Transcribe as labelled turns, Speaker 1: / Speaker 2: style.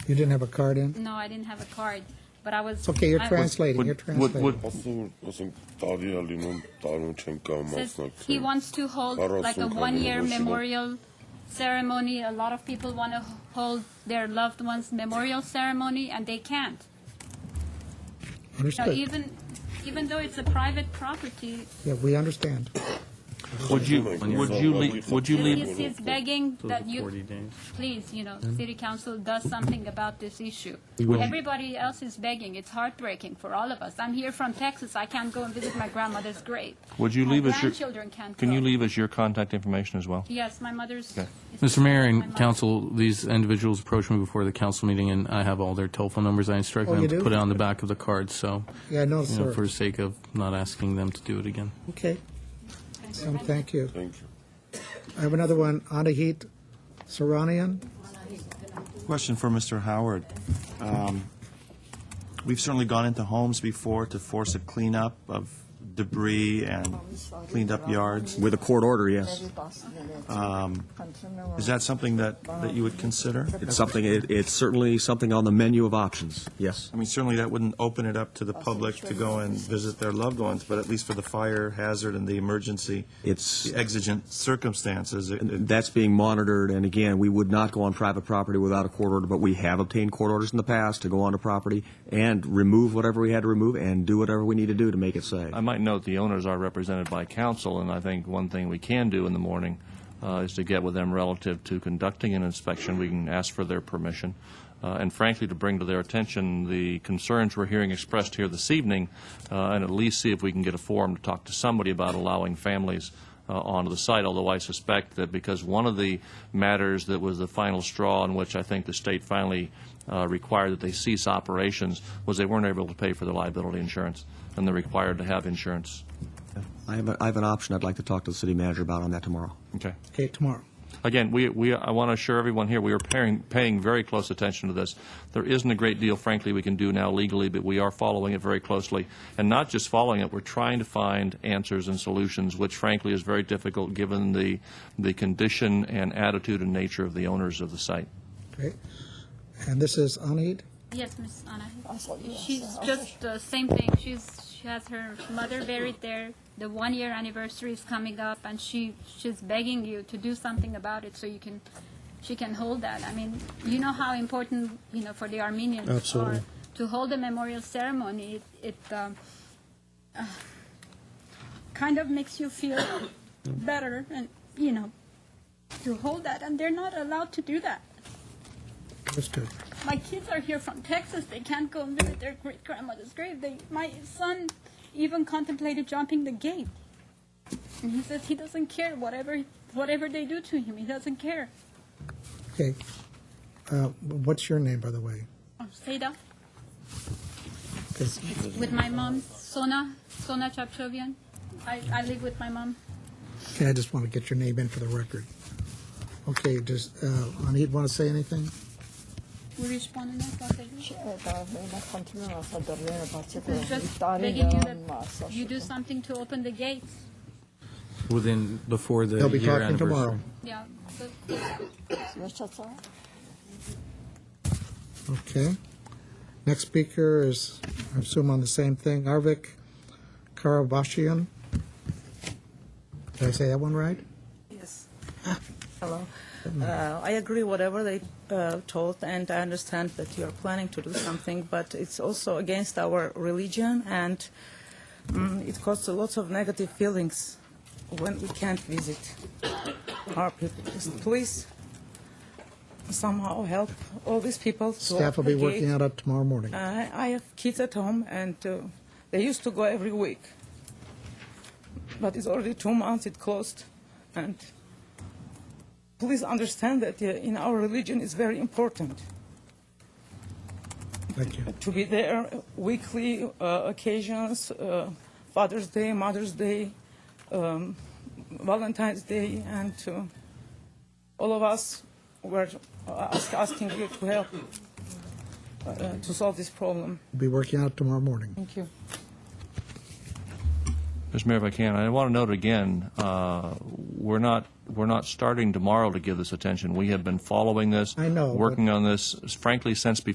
Speaker 1: You didn't have a card in?
Speaker 2: No, I didn't have a card, but I was.
Speaker 1: It's okay, you're
Speaker 2: I-
Speaker 1: translating, you're translating.
Speaker 3: Ասում ասում տարի ալի նոմ տարուն չեմ կամ
Speaker 2: says he
Speaker 3: մասնակցել։
Speaker 2: wants to hold
Speaker 3: Barroso
Speaker 2: like a
Speaker 3: Camino
Speaker 2: one-year
Speaker 3: Nacional.
Speaker 2: memorial ceremony. A lot of people want to hold their loved ones' memorial ceremony, and they can't. So
Speaker 1: Understood.
Speaker 2: even, even though it's a private property,
Speaker 1: Yeah, we understand.
Speaker 4: Would you, would you, lea- would you leave,
Speaker 2: Julius is begging
Speaker 5: Those
Speaker 2: that
Speaker 5: are
Speaker 2: you,
Speaker 5: 40 days.
Speaker 2: please, you know, city council does something about this issue.
Speaker 4: will.
Speaker 2: Everybody else is begging. It's heartbreaking for all of us. I'm here from Texas. I can't go and visit my grandmother's grave.
Speaker 4: would you
Speaker 2: My
Speaker 4: leave us your,
Speaker 2: grandchildren can't
Speaker 4: can you
Speaker 2: go.
Speaker 4: leave us your contact information as well?
Speaker 2: Yes, my mother's.
Speaker 4: Okay.
Speaker 5: Mr. Mayor
Speaker 2: my
Speaker 5: and
Speaker 2: mother-
Speaker 5: council, these individuals approached me before the council meeting, and I have all their telephone numbers. I instructed
Speaker 1: Oh, you do?
Speaker 5: them to put it on the back of the card, so,
Speaker 1: Yeah, I noticed,
Speaker 5: you know, for
Speaker 1: sir.
Speaker 5: the sake of not asking them to do it again.
Speaker 1: Okay, um, thank you.
Speaker 3: Thank you.
Speaker 1: I have another one, Anahit Saranian.
Speaker 6: Question for Mr. Howard. Um, We've certainly gone into homes before to force a cleanup of debris and cleaned up yards.
Speaker 7: With a court order, yes.
Speaker 6: Um, Is that something that, that you would consider?
Speaker 7: It's something, it- it's certainly something on the menu of options, yes.
Speaker 6: I mean, certainly that wouldn't open it up to the public to go and visit their loved ones, but at least for the fire hazard and the emergency,
Speaker 7: It's,
Speaker 6: the exigent circumstances, it- it-
Speaker 7: that's being monitored, and again, we would not go on private property without a court order, but we have obtained court orders in the past to go onto property and remove whatever we had to remove and do whatever we need to do to make it safe.
Speaker 4: I might note the owners are represented by counsel, and I think one thing we can do in the morning uh, is to get with them relative to conducting an inspection. We can ask for their permission, uh, and frankly, to bring to their attention the concerns we're hearing expressed here this evening, uh, and at least see if we can get a forum to talk to somebody about allowing families uh, onto the site, although I suspect that because one of the matters that was the final straw in which I think the state finally uh, required that they cease operations was they weren't able to pay for their liability insurance, and they're required to have insurance.
Speaker 7: I have, a- I have an option I'd like to talk to the city manager about on that tomorrow.
Speaker 4: Okay.
Speaker 1: Okay, tomorrow.
Speaker 4: Again, we, we, I want to assure everyone here, we are paying, paying very close attention to this. There isn't a great deal, frankly, we can do now legally, but we are following it very closely. And not just following it, we're trying to find answers and solutions, which frankly is very difficult given the, the condition and attitude and nature of the owners of the site.
Speaker 1: Okay. And this is Anahit?
Speaker 2: Yes, Miss Anna. She's just the same thing. She's she has her mother buried there. The one year anniversary is coming up, and she she's begging you to do something about it so you can she can hold that. I mean, you know how important you know for the Armenians
Speaker 1: Absolutely.
Speaker 2: are to hold a memorial ceremony. It, it um, uh, kind of makes you feel better, and you know to hold that, and they're not allowed to do that.
Speaker 1: That's good.
Speaker 2: My kids are here from Texas. They can't go and visit their great grandmother's grave. They, my son even contemplated jumping the gate. And he says he doesn't care whatever whatever they do to him. He doesn't care.
Speaker 1: Okay. Uh, What's your name, by the way?
Speaker 2: Oh, Seda,
Speaker 1: 'Cause-
Speaker 2: with my mom, Sona, Sona Chapchovian. I, I live with my mom.
Speaker 1: okay, I just want to get your name in for the record. Okay, does uh, Anahit want to say anything?
Speaker 2: We respond in that conversation. It's just begging you that you do
Speaker 8: Just
Speaker 2: something to open the gates.
Speaker 5: Within, before the
Speaker 1: They'll be
Speaker 5: year
Speaker 1: talking tomorrow.
Speaker 5: anniversary.
Speaker 2: Yeah. but-
Speaker 1: Okay. Next speaker is, I assume on the same thing, Arvik Karabashian. Did I say that one right?
Speaker 8: Yes. Hello. Uh, I agree whatever they uh, told, and I understand that you are planning to do something, but it's also against our religion, and mm it causes lots of negative feelings when we can't visit our people. Just Please somehow help all these people. To
Speaker 1: Staff will be working out up tomorrow morning.
Speaker 8: I, Uh, I have kids at home, and uh, they used to go every week. But it's already two months it closed, and please understand that uh, in our religion it's very important
Speaker 1: Thank you.
Speaker 8: to be there weekly uh, occasions, uh, Father's Day, Mother's Day, um, Valentine's Day, and uh, all of us were ask, asking you to help uh, to solve this problem.
Speaker 1: Be working out tomorrow morning.
Speaker 8: Thank you.
Speaker 4: Mr. Mayor, if I can, I want to note again, uh, we're not, we're not starting tomorrow to give this attention. We have been following this.
Speaker 1: I know, but-
Speaker 4: Working on this, frankly, since before